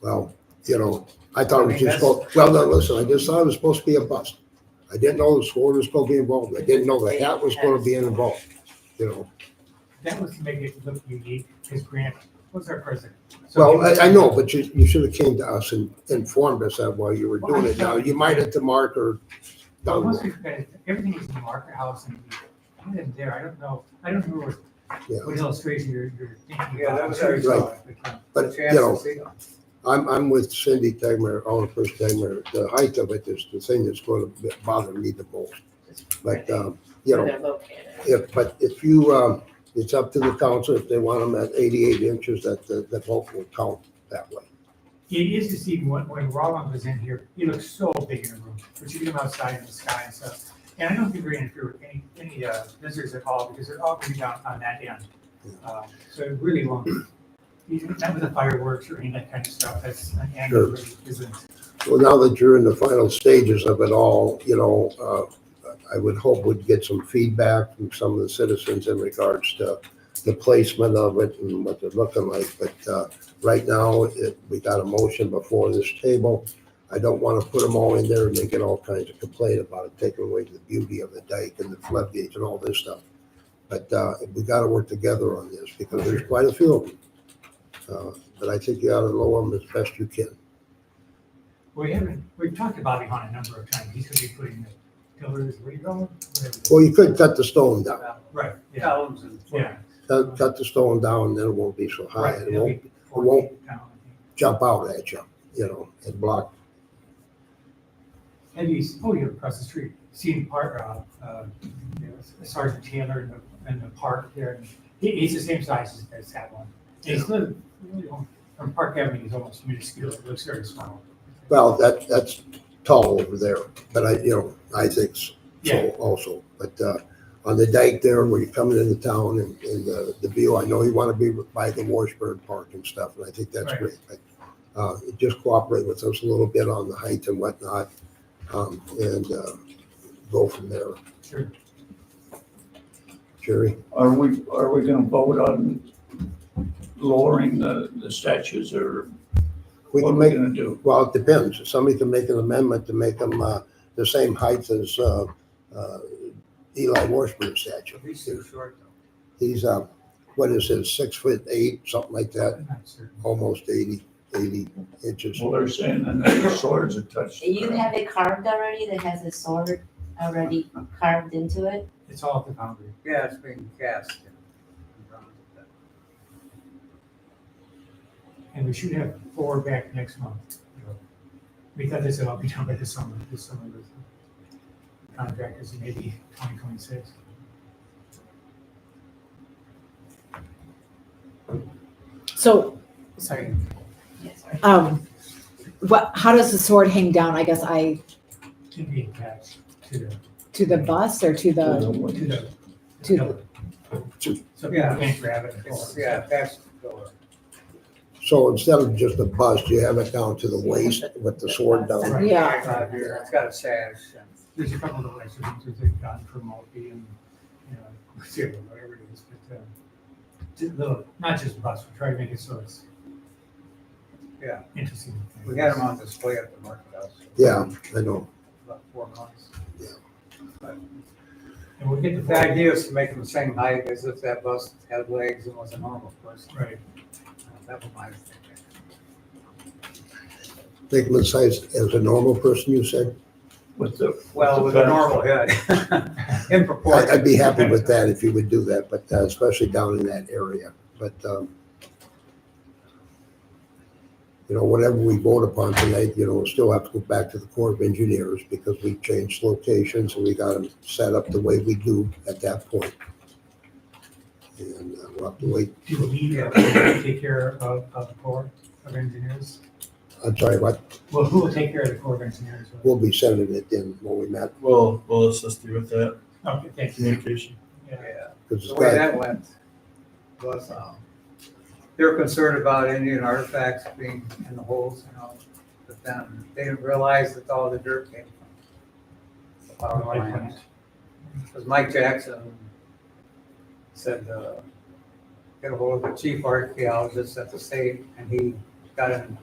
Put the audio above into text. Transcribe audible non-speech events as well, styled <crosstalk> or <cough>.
well, you know, I thought it was I mean, just, that's- go- well, no, listen, I just thought it was supposed to be a bust. I didn't know the sword was gonna be involved. I didn't know the hat was gonna be involved, you know. That was to make it look unique, because Grant was our president. So Well, he was- I, I know, but you, you should have came to us and informed us that while you were Well, I doing it. Now, don't- you might hit the mark or Well, down the Most road. of you guys, everything is in the market house and I didn't dare, I don't know, I don't know what- Yeah, what illustration you're, you're thinking. Yeah, that about. was our thought. but, you know, I'm, I'm with Cindy Tegmer, all the first Tegmer. The height of it is the thing that's gonna bother me the most. But, um, you know, They're located. if, but if you, um, it's up to the council, if they want them at eighty-eight inches, that, the, the vote will count that way. It is deceiving, when, when Rollins was in here, he looked so big in the room, but you get him outside in the sky and stuff. And I don't think we're gonna interfere with any, any, uh, visitors at all, because they're all gonna be down on that end. Uh, So it really won't, you know, none of the fireworks or any of that kind of stuff, that's, and it Sure. really isn't. Well, now that you're in the final stages of it all, you know, uh, I would hope we'd get some feedback from some of the citizens in regards to the placement of it and what they're looking like. But, uh, right now, it, we got a motion before this table. I don't want to put them all in there and they get all kinds of complaint about it, taking away the beauty of the dike and the floodgates and all this stuff. But, uh, we got to work together on this because there's quite a few of them. Uh, But I think you ought to lower them as best you can. We haven't, we've talked to Bobby Hahn a number of times, he's gonna be putting the pillars, where you going? Whatever. Well, you could cut the stone down, Right, yeah, Columns and. yeah. cut, cut the stone down, then it won't be so high, Right, Uh, it it'll be won't four won't- feet down, I think. jump out at you, you know, and block. Have you, s- oh, you're across the street, seen part, uh, uh, you know, Sergeant Taylor in the, in the park there? and He, he's the same size as this that one. He's little, really, only- from Park Avenue, he's almost minuscule, it looks very small. Well, that, that's tall over there, but I, you know, I think so Yeah. also. But, uh, on the dike there, where you're coming into town and, and the, the view, I know you wanna be by the Washburn Park and stuff, and I think that's Right. great. But, uh, just cooperate with us a little bit on the height and whatnot, um, and, uh, go from there. Sure. Jerry, Are we, are we gonna vote on lowering the, the statues or we what are can we make gonna do? Well, it depends. Somebody can make an amendment to make them uh, the same height as uh, uh, Eli Washburn statue. He's too short though. He's, uh, what is it, six foot eight, something like that, I'm not certain. almost 80, 80 inches. Well, they're saying that the swords are touched. You have it carved already, that has a sword already carved into it? It's all at the boundary. Yeah, it's being cast. And we should have four back next month. We thought this would all be done by this summer, this summer with contractors, maybe twenty twenty-six. So, sorry, Yes, um, what, how does the sword hang down, I guess I, Can be attached to the, to the bus or to the, to the. To- pillar. So people Yeah. can't grab it. and pull It's, it. yeah, that's the door. So instead of just a bust, you have it down to the waist with the sword down. Right. yeah. It's out here, It's got a sash. and- There's a couple of extra things they've gotten from Mulkey and, you know, cereal, whatever it is, but, uh, just little, not just bus, we try to make it so it's. Yeah. Interesting. We had them on display at the market house Yeah, I know. about four months. And we'll get the. The idea is to make them the same height as if that bus had legs and was a normal person. Uh, Right. That was my thinking. Make them the size as a normal person, you said? With the. Well, with a normal head. <laughs> In proportion. I- I'd be happy with that if you would do that, but uh, especially down in that area. But, um, you know, whatever we vote upon tonight, you know, we'll still have to go back to the Corps of Engineers because we changed locations and we got them set up the way we do at that point. And uh, we'll have to wait. Do we uh, <coughs> take care of, of the Corps of Engineers? I'm sorry, what, Well, who will take care of the Corps of Engineers? we'll be sending it in when we met, We'll, we'll assist you with that Okay, thank you. communication. Yeah. Yeah. because it's The way got, that went was, um, they're concerned about Indian artifacts being in the holes and all, but then they didn't realize that all the dirt came from the power plant. Because Mike Jackson said, uh, get a hold of the chief archaeologist at the state, and he got in